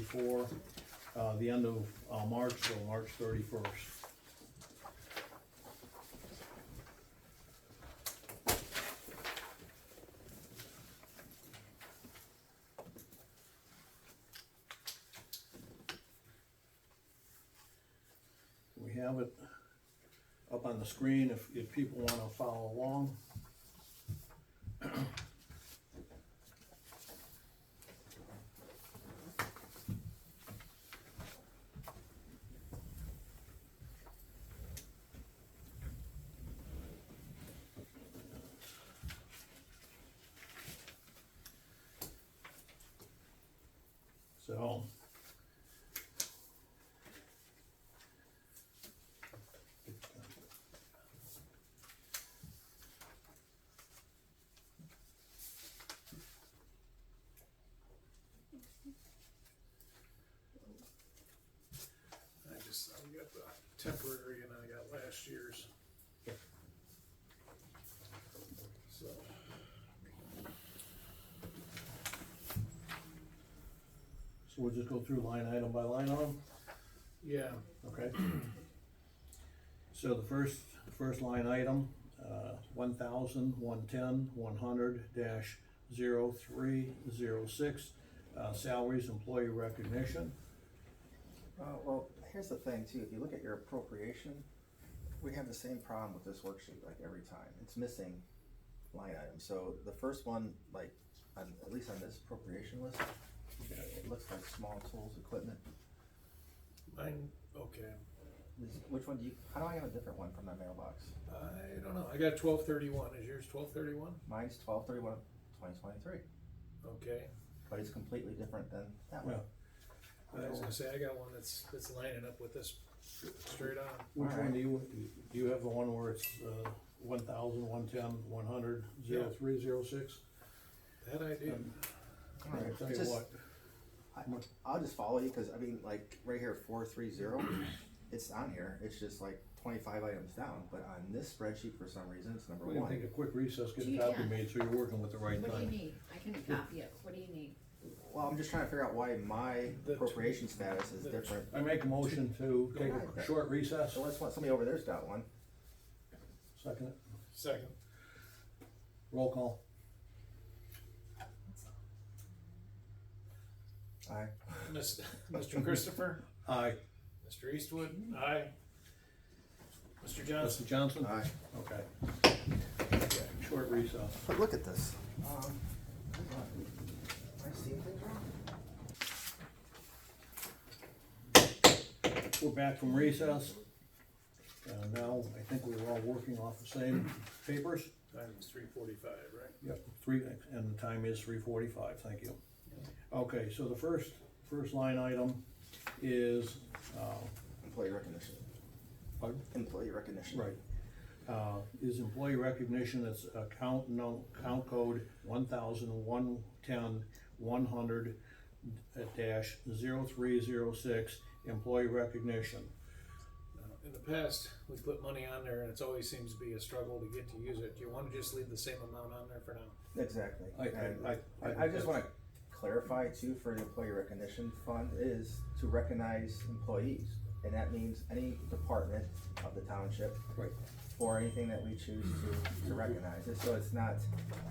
before, uh, the end of, uh, March, so March thirty-first. We have it up on the screen if, if people wanna follow along. So. I just, I got the temporary and I got last year's. So. So we'll just go through line item by line item, Yeah, okay? So the first, first line item, uh, one thousand, one-ten, one hundred dash zero three zero six, uh, salaries, employee recognition. Uh, well, here's the thing too, if you look at your appropriation, we have the same problem with this worksheet like every time, it's missing line items, so the first one, like, on, at least on this appropriation list, it looks like small tools, equipment, mine, okay, Is- which one do you, how do I have a different one from my mailbox? I don't know, I got twelve thirty-one, is yours twelve thirty-one? Mine's twelve thirty-one, twenty twenty-three, Okay, but it's completely different than that one. Yeah. I was gonna say, I got one that's, that's lining up with this straight on. Which one Alright. do you, do you have the one where it's, uh, one thousand, one-ten, one hundred, zero three zero six? That I do. Um, All right, I'll tell you just- what, I, I'll just follow you, cause I mean, like, right here, four, three, zero, it's on here, it's just like twenty-five items down, but on this spreadsheet, for some reason, it's number we're gonna one. take a quick recess, get a You copy can. made, so you're working with the right What do you thing. need? I can copy it. What do you need? Well, I'm just trying to figure out why my The- appropriation status is the- different, I make a motion to take a short recess, so let's, want- somebody over there's got one, second, it. Second. roll call. aye, Miss- Mr. Christopher, Aye. Mr. Eastwood, aye. Mr. Johnson, Mr. Johnson? aye. Okay. Short recess. But look at this. Um, hold on. Am I seeing things wrong? We're back from recess. Uh, now, I think we were all working off the same papers. time is three forty-five, right? Yep. Three, and the time is three forty-five, thank you. Okay, so the first, first line item is, uh, Employee recognition, pardon? employee recognition. Right. Uh, Is employee recognition, it's account no, count code one thousand one ten one hundred dash zero three zero six, employee recognition. Uh, In the past, we put money on there and it's always seems to be a struggle to get to use it. Do you wanna just leave the same amount on there for now? Exactly. I- I- And I- I- I, I just wanna clarify too, for the employee recognition fund is to recognize employees. And that means any department of the township Right. or anything that we choose to, to recognize it, so it's not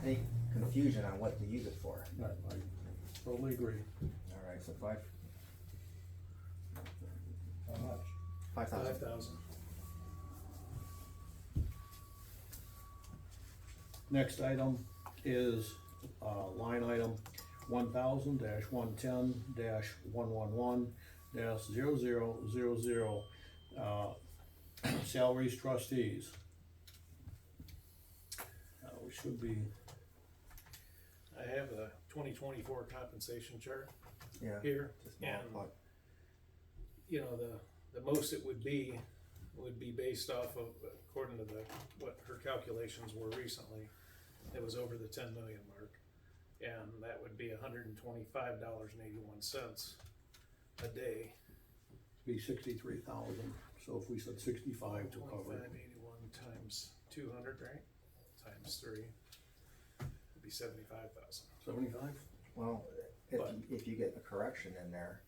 any confusion on what to use it for. I I totally agree. Alright, so five, How much? Five five thousand. thousand. Next item is, uh, line item one thousand dash one ten dash one one one dash zero zero zero zero, uh, salaries trustees. Uh, we should be, I have a twenty twenty-four compensation chart Yeah. here. Just And, multiply. you know, the, the most it would be, would be based off of, according to the, what her calculations were recently. It was over the ten million mark, and that would be hundred and twenty-five dollars and eighty-one cents a day. be sixty-three thousand, so if we said sixty-five to cover it. Twenty-five eighty-one times two hundred, right? Times three, would be seventy-five thousand. Seventy-five? Well, if, But- you- if you get a correction in there,